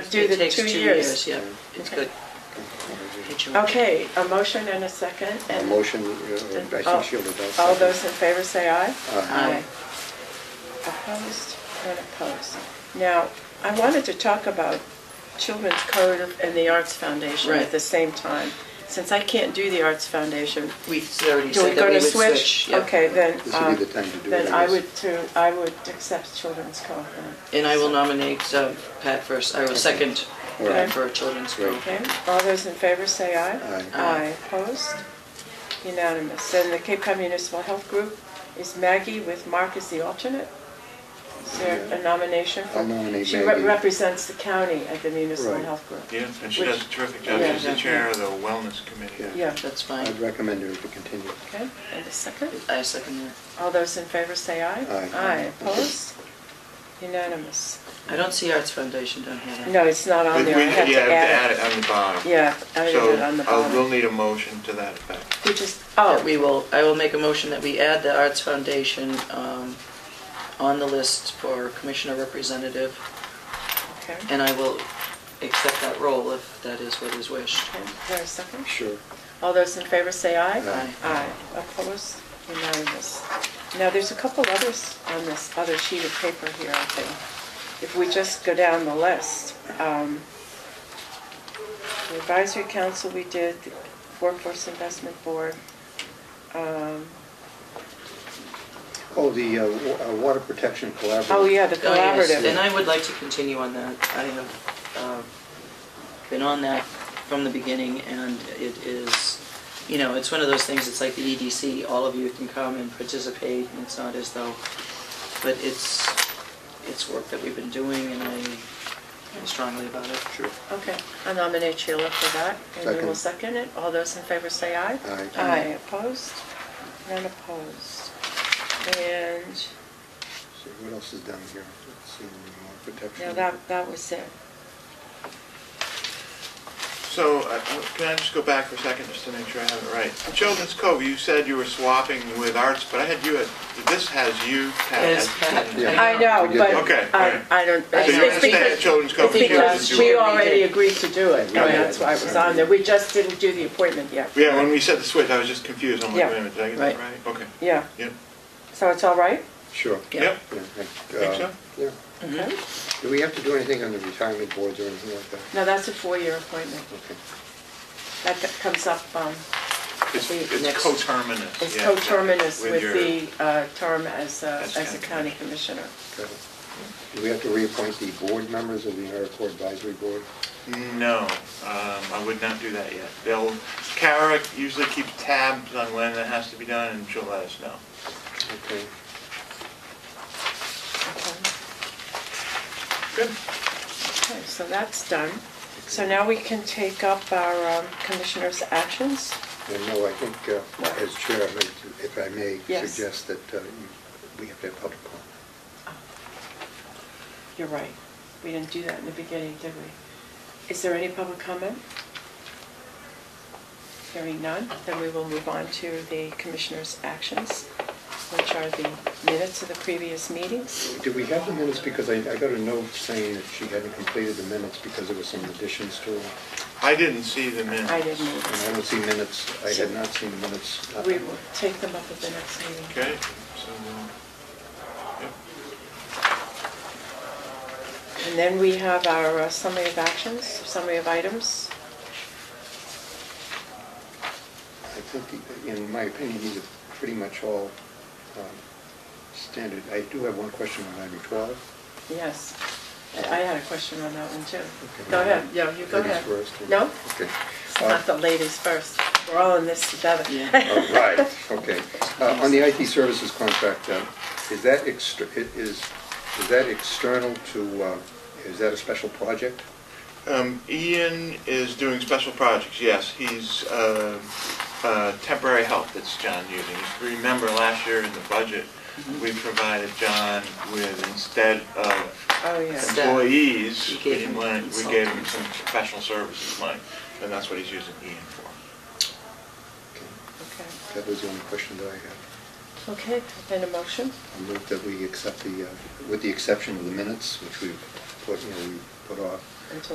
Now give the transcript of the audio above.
do the takes two years. Yeah, it's Okay. good. Okay, a motion and a second, A and motion, uh, I all think she will adopt. all those in favor say aye. Aye. Opposed, not opposed. Now, I wanted to talk about Children's Code and the Arts Foundation at Right. the same time. Since I can't do the Arts Foundation, We already do we said that go we to would switch? switch. yeah. Okay, then, This um, would be the time to do it. then I guess. would, to- I would accept Children's Code. then. And I will nominate uh, Pat first, I will second Alright. Pat for children's Right. group. Okay, all those in favor say aye. Aye. Aye, opposed? Unanimous. Then the Cape Cod Municipal Health Group is Maggie with Mark as the alternate. Is there a nomination? for- I'll nominate She re- Maggie. represents the county at the Municipal Right. Health Group. Yeah, and she Which- does a terrific job. Yeah, She's the yeah. chair of the wellness committee. Yeah. Yeah, That's I'd fine. recommend her to continue. okay, and a second. I second that. All those in favor say aye. Aye. Aye, opposed? Unanimous. I don't see Arts Foundation down here. though. No, it's not on But we- there, I have yeah, to add it. on the bottom. Yeah, I added it on the So uh, we'll bottom. need a motion to that effect. We just, That oh, we will, I will make a motion that we add the Arts Foundation um, on the list for commissioner representative, okay. and I will accept that role if that is what is wished. Okay, Is there a second? Sure. All those in favor say aye. Aye. Aye. Opposed? Unanimous. Now, there's a couple others on this other sheet of paper here, I think. If we just go down the list, um, the advisory council we did, the workforce investment board, um, Oh, the uh, wa- uh, Water Protection Collaborative. oh, yeah, the Oh, yes, And collaborative. I would like to continue on that. I have uh, been on that from the beginning, and it is, you know, it's one of those things, it's like the EDC, all of you can come and participate, and it's not as though, but it's, it's work that we've been doing, and I feel strongly about it. Sure. Okay, I nominate Sheila for that, and you will second it. All those in favor say aye. Aye. Aye, opposed? None opposed. And See, what else is down here? Let's see, Water Protection. No, that, that was it. So uh, uh, can I just go back for a second just to make sure I have it right? Children's Cove, you said you were swapping with arts, but I had you at, this has you, Pat. Yes, as Pat. children's- Yeah. I know, We did but that. Okay, I, alright. I don't. So it's you because- understand that Children's Cove it's should Because do it. we already agreed to do it, and Yeah. that's why it was on there. We just didn't do the appointment yet. Yeah, when we said the switch, I was just confused. I'm like, Yeah. wait a minute, did I get that Right. right? Okay, Yeah, yep. so it's all right? Sure. Yeah. Yep, Yeah, I Think so? uh, Yeah. Okay. Do we have to do anything on the retirement boards or anything like that? No, that's a four-year appointment. Okay. That co- comes up, um, it's I think next- it's coterminous. it's yeah. coterminous with your- the uh, term as, a- As as a county county commissioner. Got it. Do we have to reappoint the board members of the AmeriCorps Advisory Board? No, um, I would not do that yet. They'll, Kara usually keeps tabs on when that has to be done, and she'll let us know. Okay. Okay. Good. Okay, so that's done. So now we can take up our um, commissioners' actions. And no, I think, uh, as chair, I'd like to- if I may Yes. suggest that uh, you- we have to have public comment. You're right. We didn't do that in the beginning, did we? Is there any public comment? Hearing none, then we will move on to the commissioners' actions, which are the minutes of the previous meetings. Do we have the minutes? Because I I got a note saying that she hadn't completed the minutes because there were some additions to them. I didn't see the minutes. I didn't And either. I don't see minutes, I had not seen minutes. We will take them up at the next meeting. Okay, so, we'll- yep. And then we have our uh, summary of actions, summary of items. I think, the- in my opinion, these are pretty much all um, standard. I do have one question on item 12. Yes. I had a question on that one too. Okay. Go ahead, yeah, you go Ladies ahead. first. No? Okay. Uh, It's not the ladies first. We're all in this together. Yeah. Oh, Right, okay. Uh, On the IT services contract, uh, is that exter- it is is that external to, uh, is that a special project? Um, Ian is doing special projects, yes. He's uh, uh, temporary help that's John using. If you remember last year in the budget, Mm-hmm. we provided John with, instead of Oh, yeah. Staff. employees, We gave we him lent- we consultants. gave him some professional services money, and that's what he's using Ian for. Okay, Okay. That was the only question that I had. Okay, then a motion. I move that we accept the, uh, with the exception of the minutes, which we've put, you know, we put off,